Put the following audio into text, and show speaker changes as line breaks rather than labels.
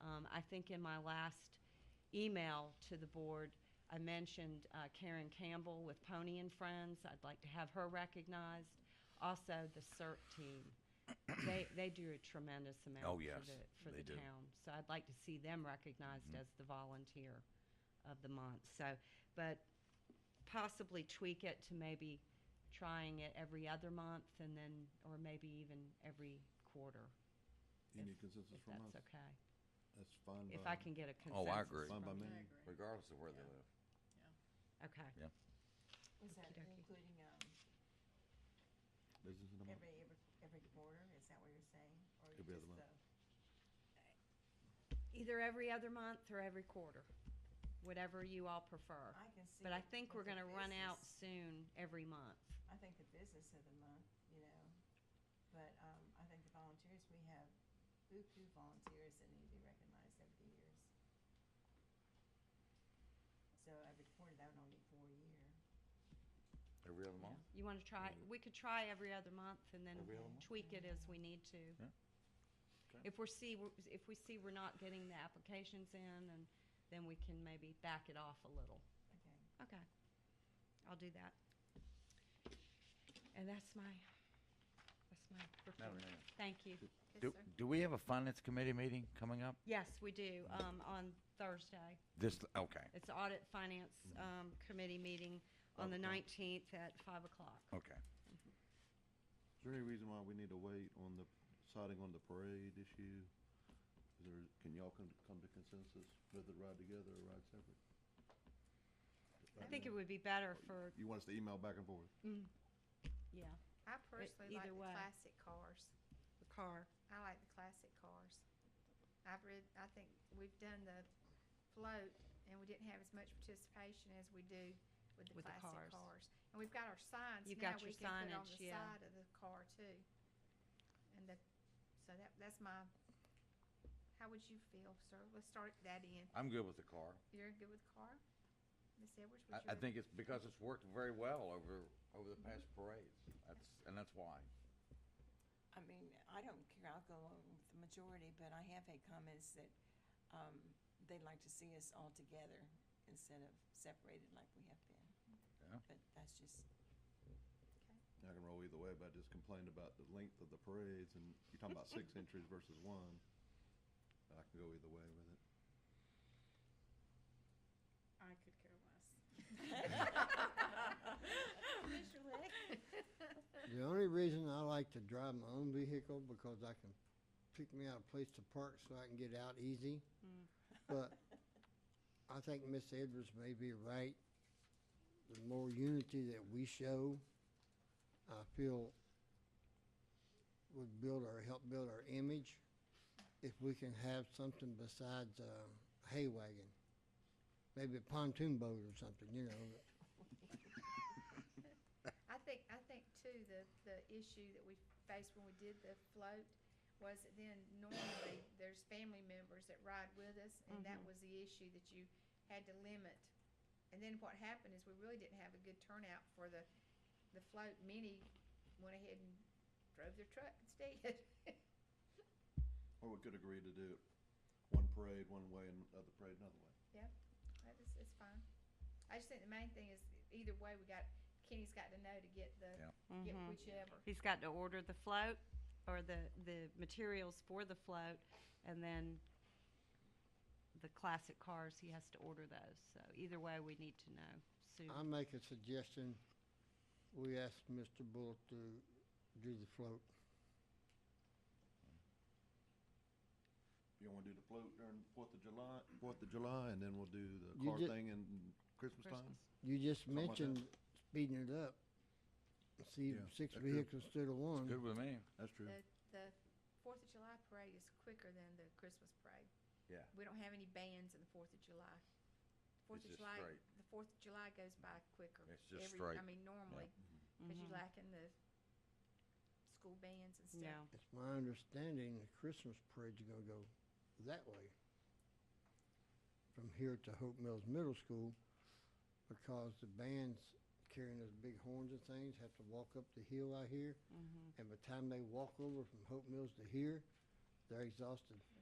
Um, I think in my last email to the board, I mentioned uh, Karen Campbell with Pony and Friends. I'd like to have her recognized. Also, the CERT team. They, they do a tremendous amount
Oh,
for
yes,
the, for
they
the
do. Mm-hmm.
town. So I'd like to see them recognized as the volunteer of the month. So, but possibly tweak it to maybe trying it every other month and then, or maybe even every quarter,
You need consensus
if
from us.
that's okay.
That's fine.
If I
by-
can get a
Oh,
consensus.
I agree.
Fine by
from-
me.
regardless of where they live.
Okay.
Yeah.
Is that
Okey-dokey.
including, um,
Business in the month.
every, every, every quarter, is that what you're saying? Or
Every other
just
month.
the-
Either every other month or every quarter, whatever you all prefer.
I can see
But I
it
think
with
we're
the
gonna run out
business.
soon every month.
I think the business of the month, you know, but, um, I think the volunteers, we have buku volunteers that need to be recognized over the years. So every quarter, that would only be four a year.
Every other month?
You wanna try,
Yeah.
we could try every other month and
Every other
then
month?
tweak it as we need to.
Yeah.
If we're see, if we see we're not getting the applications in, and then we can maybe back it off a little.
Okay.
Okay, I'll do that. And that's my, that's my report.
Mayor.
Thank you.
Do, do we have a finance committee meeting coming up?
Yes, we do, um, on Thursday.
This, okay,
It's Audit Finance, um, Committee meeting on the nineteenth at five o'clock.
okay.
Is there any reason why we need to wait on the, deciding on the parade issue? Is there, can y'all come, come to consensus whether to ride together or ride separate?
I think it would be better for,
You want us to email back and forth?
yeah,
I personally like
either
the
way.
classic cars.
the car.
I like the classic cars. I've read, I think we've done the float and we didn't have as much participation as we do with the
With the
classic
cars.
cars. And we've got our signs
You've
now
got your
we can put on
signage,
the
yeah.
side of the car too. And the, so that, that's my, how would you feel, sir? Let's start that in.
I'm good with the car.
You're good with car? Ms. Edwards,
I,
what's
I
your-
think it's because it's worked very well over, over the past parades. That's, and that's why.
I mean, I don't care, I'll go along with the majority, but I have had comments that um, they'd like to see us all together instead of separated like we have been.
Yeah.
But that's just,
Okay.
I can roll either way, but I just complained about the length of the parades and you're talking about six entries versus one. I can go either way with it.
I could care less.
The only reason I like to drive my own vehicle because I can pick me out a place to park so I can get out easy. But I think Miss Edwards may be right. The more unity that we show, I feel would build our, help build our image if we can have something besides a hay wagon. Maybe a pontoon boat or something, you know.
I think, I think too, the, the issue that we faced when we did the float was that then normally there's family members that ride with us, and that was the issue that you had to limit. And then what happened is we really didn't have a good turnout for the, the float. Many went ahead and drove their truck instead.
Or we could agree to do it one parade one way and other parade another way.
Yeah, that is, it's fine. I just think the main thing is, either way, we got, Kenny's got to know to get the, get
Mm-hmm.
whichever.
He's got to order the float or the, the materials for the float and then the classic cars, he has to order those. So either way, we need to know soon.
I make a suggestion, we ask Mr. Bullock to do the float.
You want to do the float during Fourth of July, Fourth of July, and then we'll do the
You
car
ju-
thing in Christmas time?
Christmas.
You just
Something like that.
mentioned speeding it up. See,
Yeah,
six
that could-
vehicles instead of
Good
one.
with me.
That's true.
The, the Fourth of July parade is quicker than the Christmas parade.
Yeah.
We don't have any bands in the Fourth of July. Fourth
It's just
of July,
straight.
the Fourth of July goes by quicker.
It's just
every-
straight.
I mean, normally, because
Mm-hmm.
you're lacking the school bands and
Yeah.
stuff.
It's my understanding the Christmas parade's gonna go that way. From here to Hope Mills Middle School, because the bands carrying those big horns and things have to walk up the hill out here. And by the time they walk over from Hope Mills to here, they're exhausted.